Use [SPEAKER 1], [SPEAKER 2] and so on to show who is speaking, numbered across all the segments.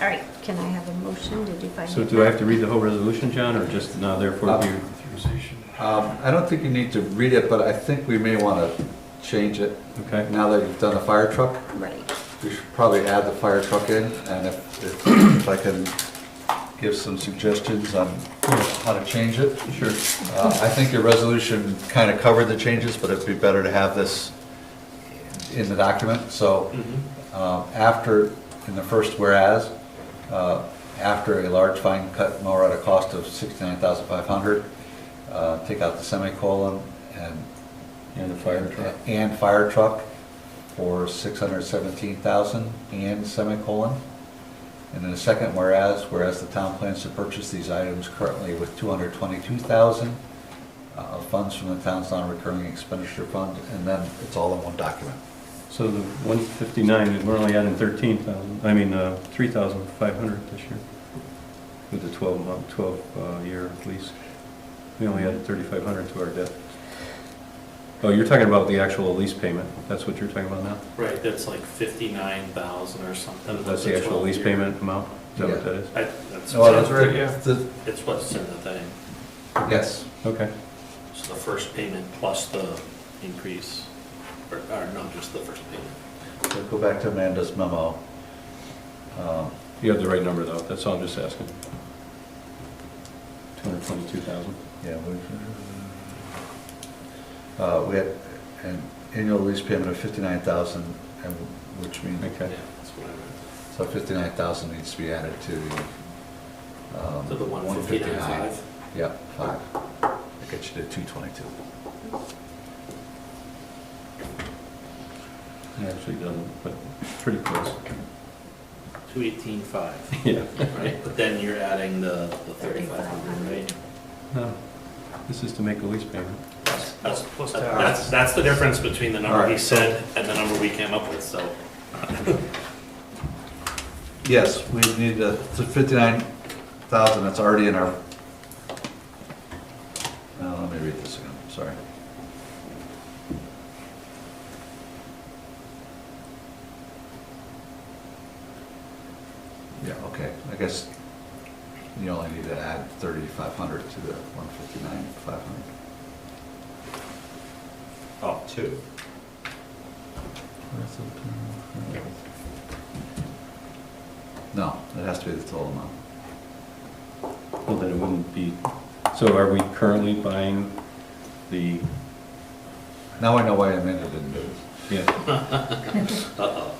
[SPEAKER 1] All right, can I have a motion to define?
[SPEAKER 2] So do I have to read the whole resolution, John, or just now therefore be?
[SPEAKER 3] Um, I don't think you need to read it, but I think we may want to change it.
[SPEAKER 2] Okay.
[SPEAKER 3] Now that you've done the fire truck,
[SPEAKER 1] Right,
[SPEAKER 3] we should probably add the fire truck in, and if, if- if I can give some suggestions on how to change it.
[SPEAKER 2] Sure.
[SPEAKER 3] Uh, I think your resolution kind of covered the changes, but it'd be better to have this in the document, so um, after, in the first whereas, uh, after a large fine cut mower at a cost of $69,500, uh, take out the semicolon and
[SPEAKER 2] And the fire truck?
[SPEAKER 3] and fire truck for six hundred seventeen thousand and semicolon. And then the second whereas, whereas the town plans to purchase these items currently with two hundred twenty-two thousand uh, of funds from the town's non-recurring expenditure fund, and then it's all in one document.
[SPEAKER 2] So the 159, we're only adding 13,000, I mean, uh, 3,500 this year with the 12 month, 12 uh, year lease. We only added 3,500 to our debt. Oh, you're talking about the actual lease payment. That's what you're talking about now?
[SPEAKER 4] Right, that's like fifty-nine thousand or something.
[SPEAKER 2] That's
[SPEAKER 4] with
[SPEAKER 2] the actual lease
[SPEAKER 4] 12 year.
[SPEAKER 2] payment Oh, amount? Is that what that is?
[SPEAKER 4] I, that's.
[SPEAKER 3] No, that's right,
[SPEAKER 4] yeah.
[SPEAKER 3] The-
[SPEAKER 4] It's what's in the thing,
[SPEAKER 3] Yes,
[SPEAKER 2] Okay.
[SPEAKER 4] so the first payment plus the increase, or, or no, just the first payment.
[SPEAKER 3] So go back to Amanda's memo. Um,
[SPEAKER 2] You have the right number though. That's all I'm just asking. 222,000.
[SPEAKER 3] Yeah, we, uh, we had an annual lease payment of fifty-nine thousand, and which means
[SPEAKER 2] Okay.
[SPEAKER 4] Yeah, that's what I
[SPEAKER 3] So fifty-nine thousand needs to be added to the, um.
[SPEAKER 4] meant. To the one
[SPEAKER 3] 159.
[SPEAKER 4] fifty-nine five.
[SPEAKER 3] Yeah, five. That gets you to two twenty-two.
[SPEAKER 2] It actually doesn't, but pretty close.
[SPEAKER 4] Two eighteen five,
[SPEAKER 2] Yeah.
[SPEAKER 4] right? But then you're adding the, the thirty-five hundred, right?
[SPEAKER 2] No, this is to make the lease payment.
[SPEAKER 4] That's, that's, that's the difference between the number he
[SPEAKER 3] Alright, so-
[SPEAKER 4] said and the number we came up with, so.
[SPEAKER 3] Yes, we need the fifty-nine thousand that's already in our, now, let me read this again, sorry. Yeah, okay, I guess you only need to add thirty-five hundred to the one fifty-nine, five hundred. Oh, two. No, it has to be the total amount.
[SPEAKER 2] Well, then it wouldn't be, so are we currently buying the,
[SPEAKER 3] Now I know why Amanda didn't do it.
[SPEAKER 2] yeah,
[SPEAKER 4] Uh-oh.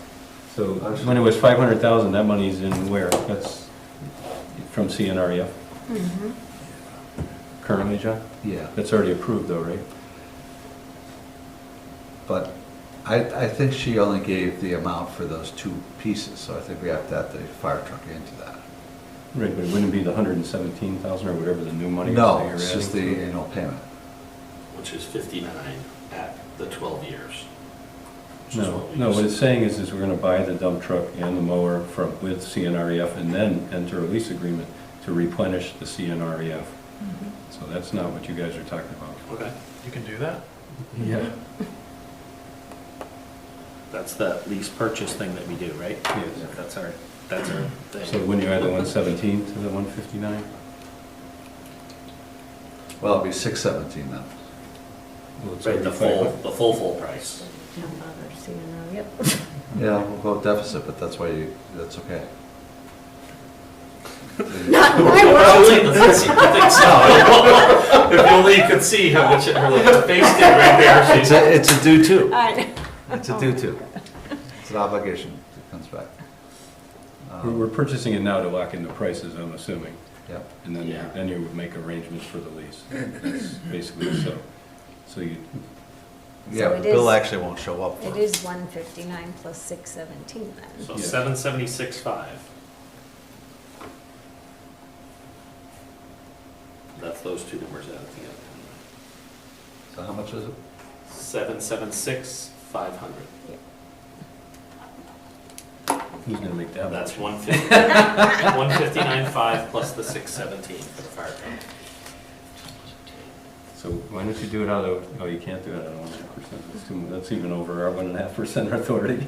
[SPEAKER 2] so when it was 500,000, that money's in where? That's from CNREF
[SPEAKER 1] mm-hmm,
[SPEAKER 2] E currently, John?
[SPEAKER 3] Yeah.
[SPEAKER 2] That's already approved though, right?
[SPEAKER 3] But I, I think she only gave the amount for those two pieces, so I think we have to add the fire truck into that.
[SPEAKER 2] Right, but it wouldn't be the 117,000 or whatever the new money is that
[SPEAKER 3] No,
[SPEAKER 2] you're
[SPEAKER 3] it's just the
[SPEAKER 2] adding to it?
[SPEAKER 3] annual payment.
[SPEAKER 4] Which is fifty-nine at the twelve years. which is
[SPEAKER 2] No,
[SPEAKER 4] what we
[SPEAKER 2] no, what
[SPEAKER 4] used.
[SPEAKER 2] it's saying is, is we're gonna buy the dump truck and the mower from, with CNREF E and then enter a lease agreement to replenish the CNREF. E So that's not what you guys are talking about.
[SPEAKER 4] Okay,
[SPEAKER 5] You can do that?
[SPEAKER 2] Yeah.
[SPEAKER 4] that's that lease purchase thing that we do, right?
[SPEAKER 2] Yes.
[SPEAKER 4] That's our, that's our
[SPEAKER 2] So
[SPEAKER 4] thing.
[SPEAKER 2] when you add the one seventeen to the one fifty-nine?
[SPEAKER 3] Well, it'd be six seventeen then.
[SPEAKER 4] Right, the full, the full, full price.
[SPEAKER 1] don't bother seeing her, yep.
[SPEAKER 3] Yeah, we'll go deficit, but that's why you, that's okay.
[SPEAKER 1] Not in my world.
[SPEAKER 4] Probably, let's see, I think so. If only you could see how much her little face did right there.
[SPEAKER 3] It's a, it's a due to.
[SPEAKER 1] I know.
[SPEAKER 3] It's a due to. It's an obligation that comes back. Um,
[SPEAKER 2] We're, we're purchasing it now to lock in the prices, I'm assuming,
[SPEAKER 3] Yep.
[SPEAKER 2] and then, you-
[SPEAKER 4] Yeah.
[SPEAKER 2] then you would make arrangements for the lease. That's basically so. So you,
[SPEAKER 3] Yeah,
[SPEAKER 1] it
[SPEAKER 3] Bill
[SPEAKER 1] is-
[SPEAKER 3] actually won't show up for
[SPEAKER 1] It is one fifty-nine plus six seventeen then.
[SPEAKER 4] So seven seventy-six five. That's those two numbers added together.
[SPEAKER 3] So how much is it?
[SPEAKER 4] Seven seven six five hundred.
[SPEAKER 2] who's gonna make that?
[SPEAKER 4] That's one fifty, one fifty-nine five plus the six seventeen for the fire company.
[SPEAKER 2] So why don't you do it out of, oh, you can't do it out of one and a half percent, that's too, that's even over our one and a half percent authority.